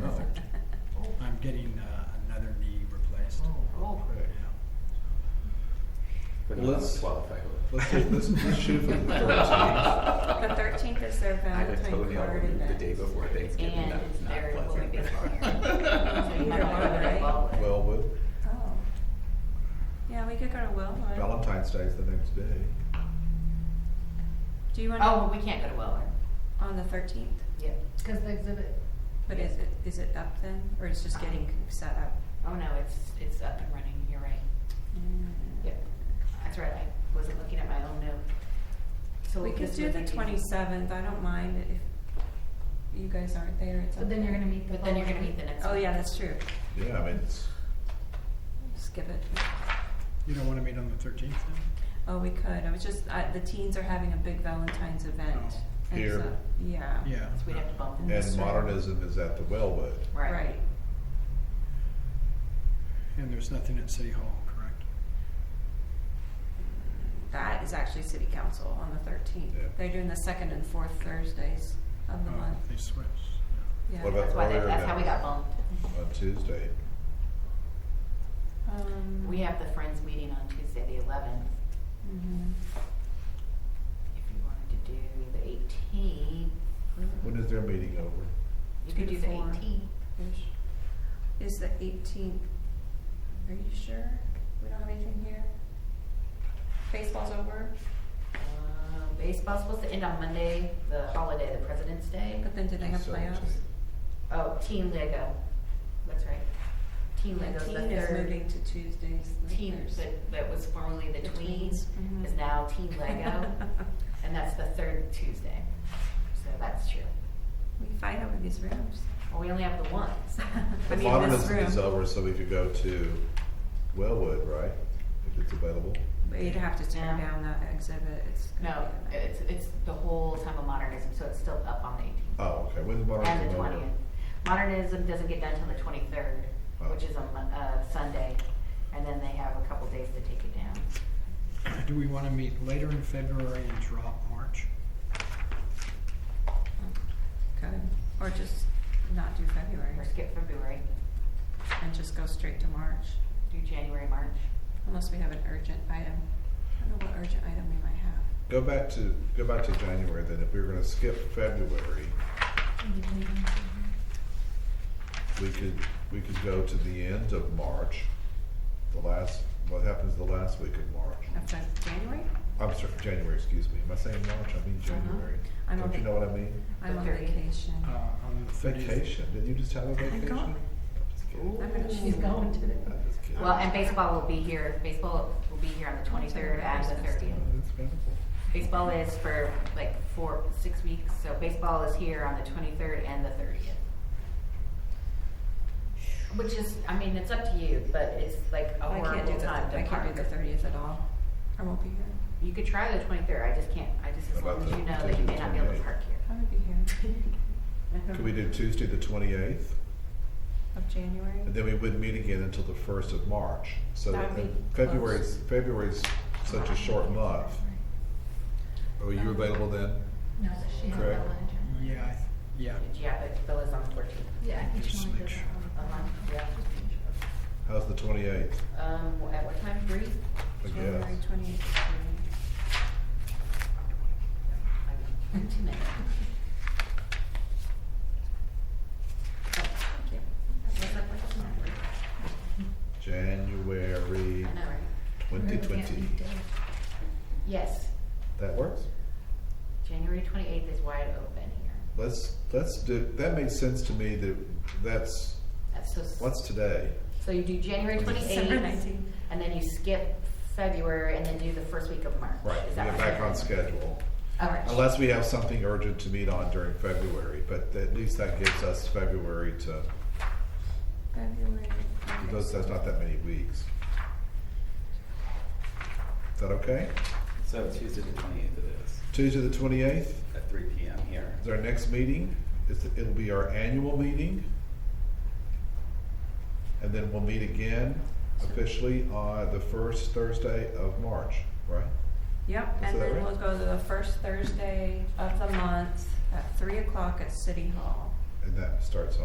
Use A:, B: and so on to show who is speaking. A: Perfect.
B: I'm getting uh, another knee replaced.
A: Oh, okay.
C: But not on the
A: Let's-
C: 12th, I hope.
A: Let's, let's, let's shoot for the thirteenth.
D: The thirteenth is their
C: I
D: Valentine's
C: would totally all
D: party.
C: the day before Thanksgiving.
E: And
C: That is not
E: there will
C: pleasant.
E: be fire. So you
D: Either
E: might wanna
D: one,
E: go to
D: right?
E: Baldwin.
A: Wellwood,
D: Oh. Yeah, we could go to Wellwood.
A: Valentine's Day is the next day.
D: Do you want
E: Oh, we can't go to Weller.
D: on the thirteenth?
E: Yeah.
F: Because the exhibit,
D: But is it is it up then, or it's just getting set up?
E: Oh, no, it's, it's up and running, you're right.
F: Mm.
E: Yep, that's right, I wasn't looking at my own note. So
D: We could
E: this
D: do
E: would
D: the
E: be-
D: twenty seventh. I don't mind if you guys aren't there. It's
F: but then you're gonna
D: okay.
F: meet the.
E: But then you're gonna
F: following-
E: meet the next
D: Oh
E: one.
D: yeah, that's true.
A: Yeah, I mean, it's,
D: Skip it.
B: You don't want to meet on the 13th then?
D: Oh, we could. I was just I, the teens are having a big Valentine's event.
B: Oh.
D: and
A: Here.
D: so- yeah.
B: Yeah.
E: So we'd have to bump it.
D: That's
A: and
D: right.
A: modernism is at the Wellwood.
E: Right.
D: Right.
B: And there's nothing at City Hall, correct?
D: That is actually city council on the thirteenth.
A: Yeah.
D: They're doing the second and fourth Thursdays of the
B: Oh,
D: month.
B: They switched. yeah.
D: Yeah.
A: What about
E: That's why, that-
A: earlier
E: that's how
A: than-
E: we got bumped.
F: Mm-hmm.
A: On Tuesday,
D: Um,
E: We have the Friends meeting on Tuesday, the eleventh.
D: mhm.
E: If you wanted to do the eighteenth,
A: when is their meeting over?
E: you could do the
D: Before.
E: eighteenth.
D: Ish. Is the eighteenth? Are you sure we don't have anything here? Baseball's over,
E: Um, Baseball's supposed to end on Monday, the holiday, the President's Day.
D: but then do they have playoffs?
A: 17th.
E: Oh, Team Lego, that's right. Team
D: The
E: Lego's the
D: Teen is
E: third.
D: moving to Tuesdays. the
E: Team
D: Thursday.
E: that, that was formerly the
D: The
E: Tweens
D: tweens, mhm.
E: is now Team Lego, and that's the third Tuesday. So that's true.
D: We fight over these rooms.
E: Well, we only have the ones.
D: I
A: The
D: mean, this
A: modernism
D: room.
A: is over, so we could go to Wellwood, right? If it's available.
D: But you'd have to tear
E: No.
D: down that exhibit, it's.
E: No,
D: gonna be a mess.
E: it's, it's the whole time of modernism, so it's still up on the eighteenth.
A: Oh, okay, when's modernism
E: And the
A: over?
E: twentieth. Modernism doesn't get done till the twenty-third,
A: Oh.
E: which is on, Mon- uh, Sunday, and then they have a couple days to take it down.
B: Do we want to meet later in February and drop March?
D: Good, or just not do February
E: Or skip February,
D: and just go straight to March,
E: do January, March.
D: unless we have an urgent item. I don't know what urgent item we might have.
A: Go back to, go back to January then, if we were gonna skip February, we could, we could go to the end of March, the last, what happens the last week of March?
D: After January?
A: I'm sorry, January, excuse me, am I saying March, I mean January,
D: I'm
A: don't
D: on
A: you
D: vac-
A: know what I mean?
D: I'm
E: The
D: on
E: 30th.
D: vacation.
B: Uh, on the 30th?
A: Vacation, did you just have a vacation?
D: gone.
A: I'm just kidding.
D: I'm gonna
F: She's going to the.
A: I'm just kidding.
E: Well, and baseball will be here, baseball will be here on the twenty-third and the thirtieth.
A: Oh, That's wonderful.
E: Baseball is for like four, six weeks, so baseball is here on the twenty-third and the thirtieth. Which is, I mean, it's up to you, but it's like a
D: I can't do
E: horrible
D: the,
E: time to
D: I can't do the
E: park.
D: thirtieth at all. I won't be here.
E: You could try the twenty-third, I just can't, I just, as
A: How
E: long
A: about
E: as
A: the
E: you know that you may not be able to
A: 28th?
E: park
D: I would be here
E: here.
A: Could we do Tuesday the twenty-eighth,
D: of January.
A: and then we wouldn't meet again until the first of March, so
D: That would
A: and
D: be
A: February's, February's such a short month. Are you available then?
F: No, but she has
A: Correct.
F: that one in January.
B: Yeah, I- yeah.
E: Yeah, but Bella's on the fourteenth.
F: Yeah, I think
B: Just
F: she only
B: make
F: does
B: sure.
F: that one.
E: Uh-huh, yeah.
A: How's the twenty-eighth?
E: Um, at what time, three?
D: January twenty-eighth.
E: Like, Two minutes. Thank you. What's up with the number? I
A: January
E: know, right?
A: twenty
F: Really can't
A: twenty.
F: meet days.
E: Yes,
A: That works.
E: January twenty-eighth is wide open here.
A: Let's, let's do, that made sense to me that that's,
E: That's so. s-
A: what's today?
E: So you do January
D: December
E: twenty-eighth,
D: nineteenth.
E: and then you skip February, and then do the first week of March.
A: Right,
E: Is that
A: we're
E: what
A: back
E: you're
A: on
E: saying?
A: schedule.
E: All right.
A: Unless we have something urgent to meet on during February, but at least that gives us February to,
D: February.
A: because that's not that many weeks. Is that okay?
C: So Tuesday the 28th it is,
A: Tuesday the twenty-eighth
C: at 3 PM here.
A: is our next meeting. It's, it'll be our annual meeting. And then we'll meet again officially on the first Thursday of March, right?
D: Yep,
A: Is
D: and
A: that
D: then
A: right?
D: we'll go to the first Thursday of the month at three o'clock at City Hall.
A: And that starts on